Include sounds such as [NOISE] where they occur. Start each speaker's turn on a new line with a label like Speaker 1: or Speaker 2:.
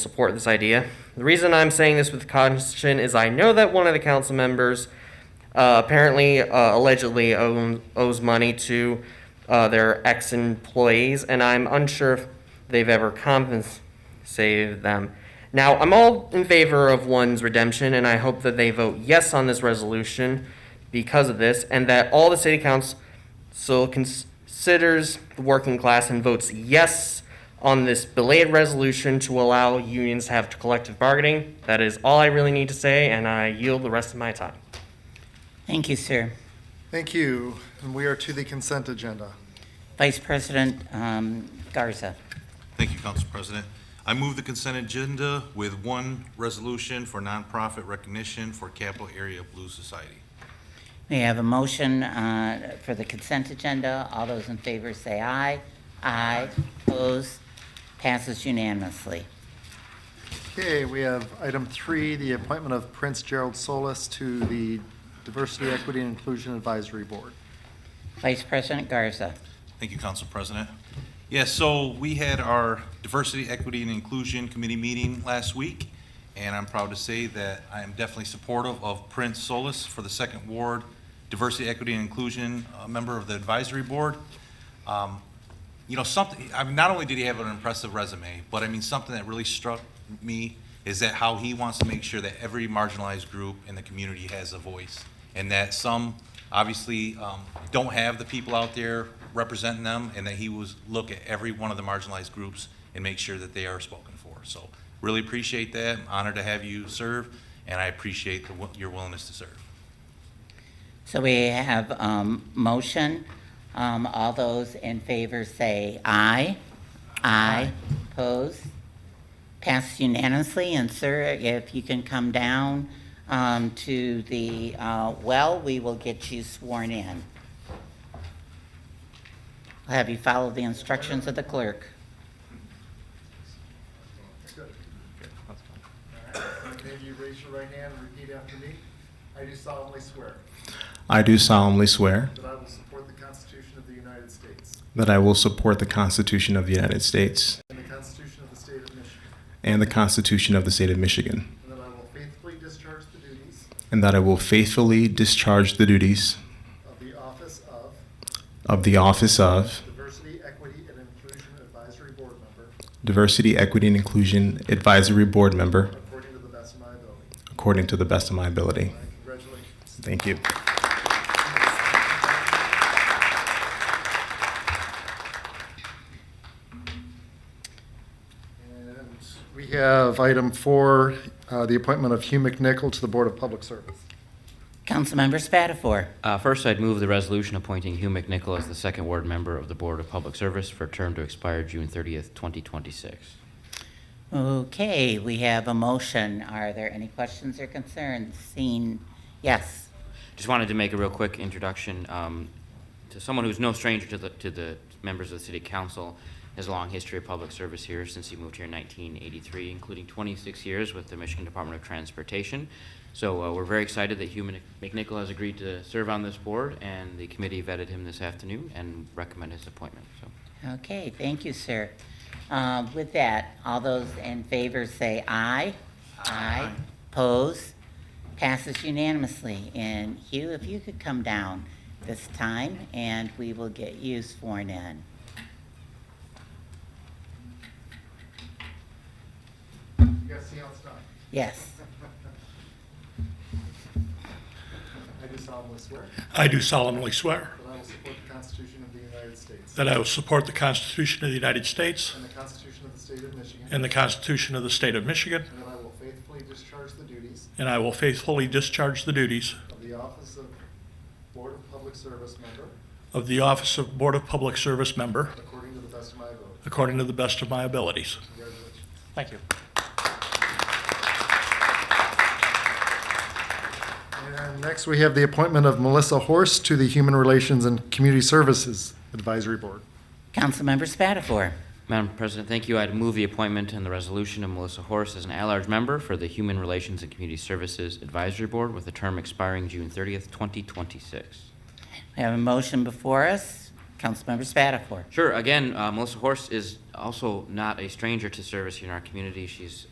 Speaker 1: support this idea. The reason I'm saying this with caution is I know that one of the council members uh, apparently, uh, allegedly, own, owes money to uh, their ex employees, and I'm unsure if they've ever compensated them. Now, I'm all in favor of one's redemption, and I hope that they vote yes on this resolution because of this, and that all the city council considers the working class and votes yes on this belated resolution to allow unions to have collective bargaining. That is all I really need to say, and I yield the rest of my time.
Speaker 2: Thank you, sir.
Speaker 3: Thank you. And we are to the consent agenda.
Speaker 2: Vice President um, Garza.
Speaker 4: Thank you, Council President. I move the consent agenda with one resolution for nonprofit recognition for Capital Area Blue Society.
Speaker 2: We have a motion uh, for the consent agenda. All those in favor say aye. Aye. Opposed? Passes unanimously.
Speaker 3: Okay, we have item three, the appointment of Prince Gerald Solis to the Diversity, Equity, and Inclusion Advisory Board.
Speaker 2: Vice President Garza.
Speaker 4: Thank you, Council President. Yes, so we had our Diversity, Equity, and Inclusion Committee meeting last week, and I'm proud to say that I am definitely supportive of Prince Solis for the Second Ward Diversity, Equity, and Inclusion, uh member of the Advisory Board. Um, you know, something, I mean, not only did he have an impressive resume, but I mean, something that really struck me is that how he wants to make sure that every marginalized group in the community has a voice. And that some obviously um, don't have the people out there representing them, and that he was, look at every one of the marginalized groups and make sure that they are spoken for. So really appreciate that. I'm honored to have you serve, and I appreciate the wi- your willingness to serve.
Speaker 2: So we have um, motion. Um, All those in favor say aye. Aye. Opposed? Passed unanimously. And sir, if you can come down um, to the uh, well, we will get you sworn in. I'll have you follow the instructions of the clerk.
Speaker 3: Can you raise your right hand and repeat after me? I do solemnly swear
Speaker 5: I do solemnly swear
Speaker 3: that I will support the Constitution of the United States
Speaker 5: that I will support the Constitution of the United States
Speaker 3: and the Constitution of the State of Michigan,
Speaker 5: and the Constitution of the State of Michigan,
Speaker 3: and that I will faithfully discharge the duties
Speaker 5: and that I will faithfully discharge the duties
Speaker 3: of the office of
Speaker 5: of the office of
Speaker 3: Diversity, Equity, and Inclusion Advisory Board Member
Speaker 5: Diversity, Equity, and Inclusion Advisory Board Member
Speaker 3: according to the best of my ability.
Speaker 5: according to the best of my ability.
Speaker 3: Congratulations.
Speaker 5: Thank you.
Speaker 3: And we have item four, uh, the appointment of Hugh McNichol to the Board of Public Service.
Speaker 2: Councilmember Spatafor.
Speaker 6: Uh, First, I'd move the resolution appointing Hugh McNichol as the second ward member of the Board of Public Service for a term to expire June 30th, 2026.
Speaker 2: Okay, we have a motion. Are there any questions or concerns? Seen, yes.
Speaker 6: Just wanted to make a real quick introduction um, to someone who's no stranger to the, to the members of the city council. Has a long history of public service here since he moved here in 1983, including 26 years with the Michigan Department of Transportation. So uh, we're very excited that Hugh Mc- McNichol has agreed to serve on this board, and the committee vetted him this afternoon and recommend his appointment. So
Speaker 2: Okay, thank you, sir. Uh, With that, all those in favor say aye. Aye. Pose. Passes unanimously. And Hugh, if you could come down this time, and we will get you sworn in.
Speaker 3: You guys see how it's
Speaker 7: [LAUGHS]
Speaker 3: done?
Speaker 2: Yes.
Speaker 3: I do solemnly swear
Speaker 7: I do solemnly swear
Speaker 3: that I will support the Constitution of the United States
Speaker 7: that I will support the Constitution of the United States
Speaker 3: and the Constitution of the State of Michigan, and
Speaker 7: and the Constitution of the State of Michigan,
Speaker 3: that I will faithfully discharge the duties
Speaker 7: and I will faithfully discharge the duties
Speaker 3: of the office of Board of Public Service Member
Speaker 7: of the Office of Board of Public Service Member
Speaker 3: according to the best of my ability.
Speaker 7: according to the best of my abilities.
Speaker 3: Congratulations.
Speaker 7: Thank you.
Speaker 3: And next, we have the appointment of Melissa Horst to the Human Relations and Community Services Advisory Board.
Speaker 2: Councilmember Spatafor.
Speaker 6: Madam President, thank you. I'd move the appointment and the resolution of Melissa Horace as an at-large member for the Human Relations and Community Services Advisory Board with a term expiring June 30th, 2026.
Speaker 2: We have a motion before us. Councilmember Spatafor.
Speaker 6: Sure, again, uh, Melissa Horace is also not a stranger to service here in our community. She's